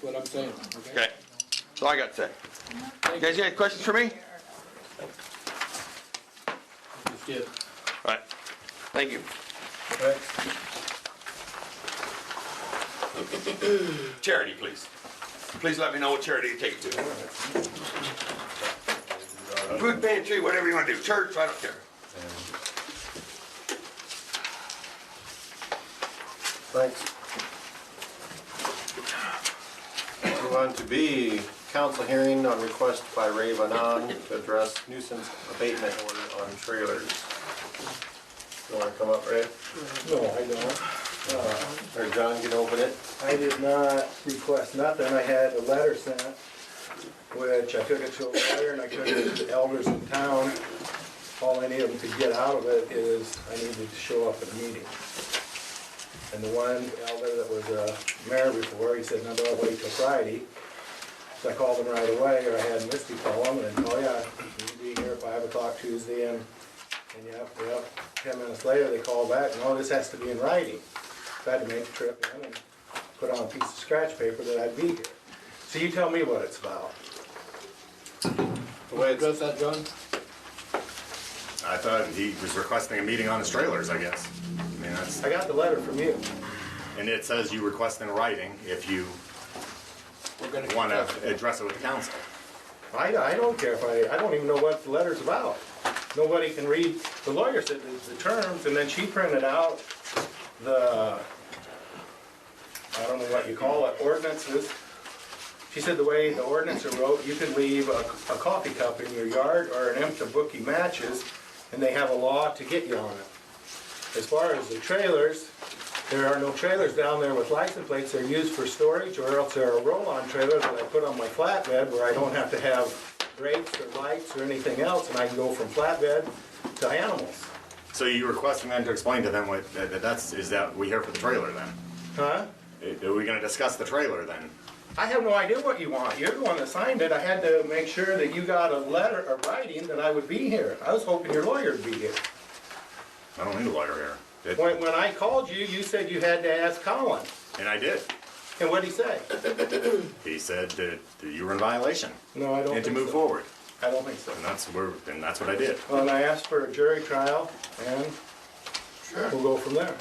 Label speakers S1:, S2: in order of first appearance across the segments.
S1: what I'm saying, okay?
S2: Okay, that's all I got to say. You guys got any questions for me?
S1: Just did.
S2: All right, thank you. Charity, please. Please let me know what charity you take it to. Food pantry, whatever you want to do, church, I don't care.
S3: Thanks. Move on to B, council hearing on request by Ray Vanon to address nuisance abatement order on trailers. You wanna come up, Ray?
S4: No, I don't.
S3: Or John can open it?
S4: I did not request nothing. I had a letter sent, which I took it to a lawyer and I took it to the elders in town. All I need them to get out of it is I needed to show up at a meeting. And the one elder that was uh, mayor before, he said, no, don't wait till Friday. So I called him right away, or I had Misty call him and, oh yeah, you'll be here at five o'clock Tuesday and, and yep, yep. Ten minutes later, they call back, no, this has to be in writing. So I had to make the trip in and put on a piece of scratch paper that I'd be here. So you tell me what it's about.
S3: The way it's,
S1: Address that, John?
S5: I thought he was requesting a meeting on his trailers, I guess. I mean, that's,
S4: I got the letter from you.
S5: and it says you request in writing if you
S1: We're gonna
S5: want
S1: discuss
S5: to address it with the council.
S4: I, I don't care if I, I don't even know what the letter's about. Nobody can read, the lawyer said the- the terms, and then she printed out the, I don't know what you call it, ordinances. She said the way the ordinance are wrote, you could leave a, a coffee cup in your yard or an empty book of matches, and they have a law to get you on it. As far as the trailers, there are no trailers down there with license plates, they're used for storage, or else they're a roll-on trailer that I put on my flatbed where I don't have to have brakes or lights or anything else, and I can go from flatbed to animals.
S5: So you requesting them to explain to them what, that that that's, is that we here for the trailer then?
S4: Huh?
S5: Are we going to discuss the trailer then?
S4: I have no idea what you want, you're the one that signed it, I had to make sure that you got a letter, a writing that I would be here. I was hoping your lawyer would be here.
S5: I don't need a lawyer here. It-
S4: When, when I called you, you said you had to ask Colin,
S5: And I did.
S4: and what'd he say?
S5: He said that that you were in violation
S4: No, I don't
S5: and to
S4: think
S5: move
S4: so.
S5: forward.
S4: I don't think so.
S5: And that's where, and that's what I did.
S4: Well, and I asked for a jury trial, and we'll go from there.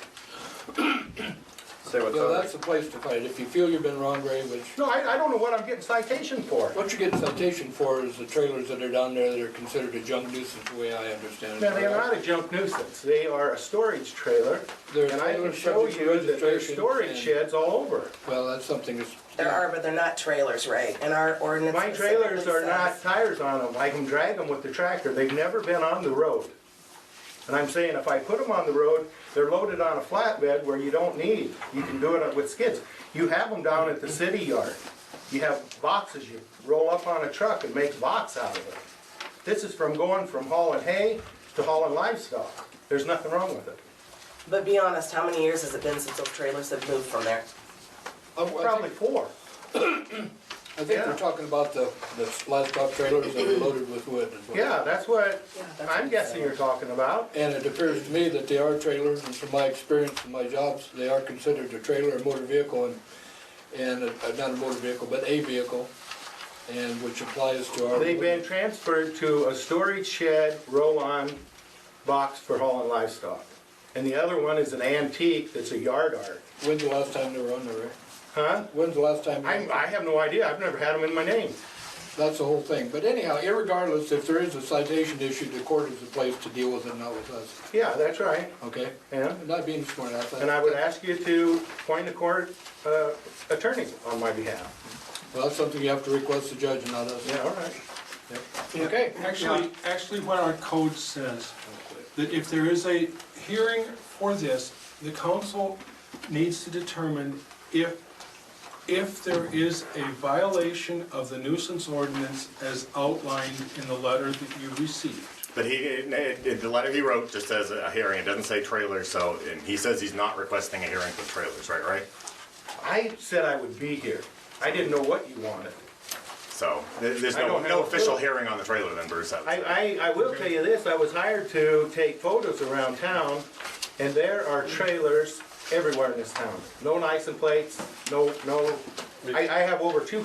S3: say what's
S1: Yeah,
S3: on
S1: that's
S3: it.
S1: the place to fight. If you feel you've been wronged, Ray, which,
S4: No, I, I don't know what I'm getting citation for.
S1: what you get citation for is the trailers that are down there that are considered a junk nuisance, the way I understand it.
S4: Now, they're not a junk nuisance, they are a storage trailer,
S1: They're
S4: and I can
S1: trailers
S4: show
S1: subject to
S4: you that there's
S1: registration
S4: storage
S1: and-
S4: sheds all over.
S1: Well, that's something that's.
S6: There are, but they're not trailers, right? And our ordinance.
S4: My trailers
S6: specifically
S4: are not
S6: says-
S4: tires on them, I can drag them with the tractor, they've never been on the road. And I'm saying if I put them on the road, they're loaded on a flatbed where you don't need, you can do it with skids. You have them down at the city yard, you have boxes, you roll up on a truck and make box out of it. This is from going from hauling hay to hauling livestock, there's nothing wrong with it.
S6: But be honest, how many years has it been since those trailers have moved from there?
S1: Oh, I think-
S4: Probably four.
S1: I think we're
S4: yeah.
S1: talking about the, the livestock trailers that are loaded with wood as well.
S4: Yeah, that's what
S6: that's
S4: I'm guessing you're talking about.
S1: And it appears to me that they are trailers, and from my experience and my jobs, they are considered a trailer, a motor vehicle, and, and, a- not a motor vehicle, but a vehicle, and which applies to our.
S4: They've been transferred to a storage shed, roll-on box for hauling livestock. And the other one is an antique that's a yard art.
S1: When's the last time they were on there, Rick?
S4: Huh?
S1: When's the last time?
S4: I, I have no idea, I've never had them in my name.
S1: That's the whole thing, but anyhow, irregardless, if there is a citation issue, the court is the place to deal with it, not with us,
S4: Yeah, that's right,
S1: okay?
S4: yeah.
S1: I'm not being smart about that.
S4: And I would ask you to appoint a court uh, attorney on my behalf.
S1: Well, that's something you have to request the judge and not us.
S4: Yeah, all right.
S7: Yeah,
S1: Okay.
S7: Actually, actually what our code says, that if there is a hearing for this, the council needs to determine if, if there is a violation of the nuisance ordinance as outlined in the letter that you received.
S5: But he, it- it- the letter he wrote just says a hearing, it doesn't say trailer, so, and he says he's not requesting a hearing for trailers, right, right?
S4: I said I would be here, I didn't know what you wanted.
S5: So, th- there's
S4: I
S5: no,
S4: don't have
S5: no
S4: a
S5: official
S4: clue.
S5: hearing on the trailer then, Bruce, I would say.
S4: I, I, I will tell you this, I was hired to take photos around town, and there are trailers everywhere in this town. No license plates, no, no I, I have over two